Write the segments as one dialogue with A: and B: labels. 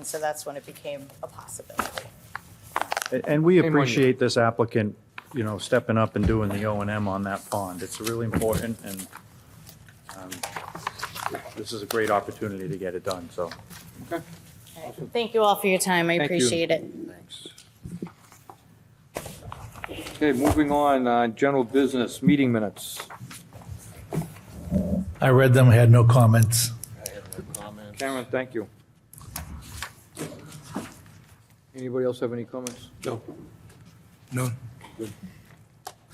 A: And so that's when it became a possibility.
B: A- And we
C: Hey, Monique.
B: appreciate this applicant, you know, stepping up and doing the O and M on that pond. It's really important, and um, this is a great opportunity to get it done, so.
A: All right. Thank you all for your time. I
C: Thank you.
A: appreciate it.
C: Thanks. Okay, moving on, uh, general business, meeting minutes.
D: I read them, I had no comments.
C: Cameron, thank you. Anybody else have any comments?
D: No. No.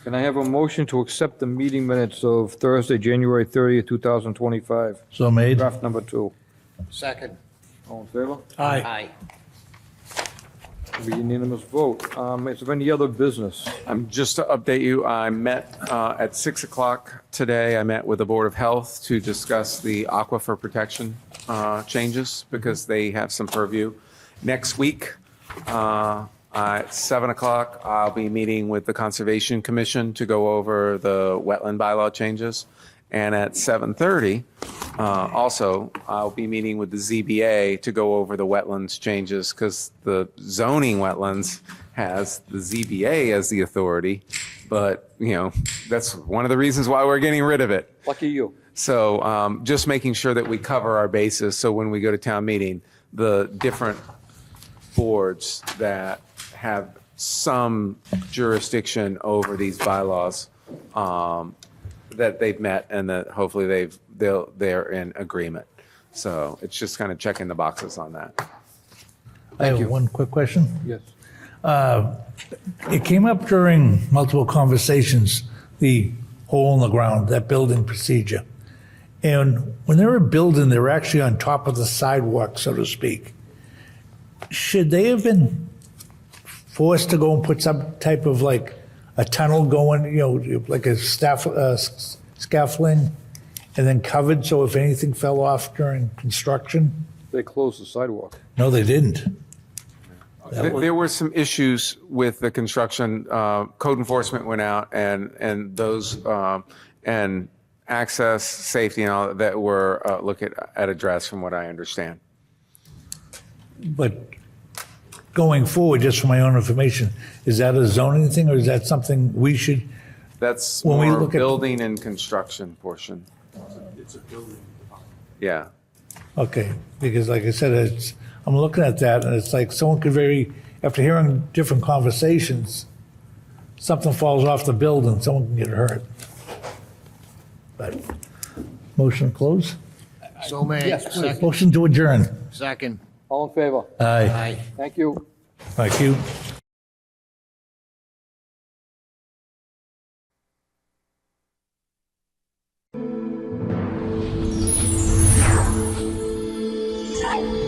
C: Can I have a motion to accept the meeting minutes of Thursday, January 30th, 2025,
D: So made?
C: draft number two?
E: Second.
C: All in favor?
D: Aye.
E: Aye.
C: It'll be unanimous vote. Um, Is there any other business?
F: Um, Just to update you, I met uh, at 6 o'clock today, I met with the Board of Health to discuss the aquifer protection uh, changes because they have some purview. Next week, uh, at 7 o'clock, I'll be meeting with the Conservation Commission to go over the wetland bylaw changes. And at 7:30, uh, also, I'll be meeting with the ZBA to go over the wetlands changes because the zoning wetlands has the ZBA as the authority. But, you know, that's one of the reasons why we're getting rid of it.
C: Lucky you.
F: So um, just making sure that we cover our bases, so when we go to town meeting, the different boards that have some jurisdiction over these bylaws, um, that they've met and that hopefully they've, they'll, they're in agreement. So it's just kind of checking the boxes on that.
D: I have one quick question.
C: Yes.
D: It came up during multiple conversations, the hole in the ground, that building procedure. And when they were building, they were actually on top of the sidewalk, so to speak. Should they have been forced to go and put some type of like a tunnel going, you know, like a staff, uh, s- scaffolding? And then covered, so if anything fell off during construction?
C: They closed the sidewalk.
D: No, they didn't.
F: There there were some issues with the construction. Uh, Code enforcement went out and, and those, um, and access, safety and all that were, uh, look at, at address from what I understand.
D: But going forward, just for my own information, is that a zoning thing or is that something we should?
F: That's
D: When we
F: more
D: look at-
F: building and construction portion. Yeah.
D: Okay, because like I said, it's, I'm looking at that and it's like someone could very, after hearing different conversations, something falls off the building, someone can get hurt. But, motion to close?
E: So made. Second.
D: Motion to adjourn.
E: Second.
C: All in favor?
D: Aye.
E: Aye.
C: Thank you.
D: Thank you.
G: Tchau!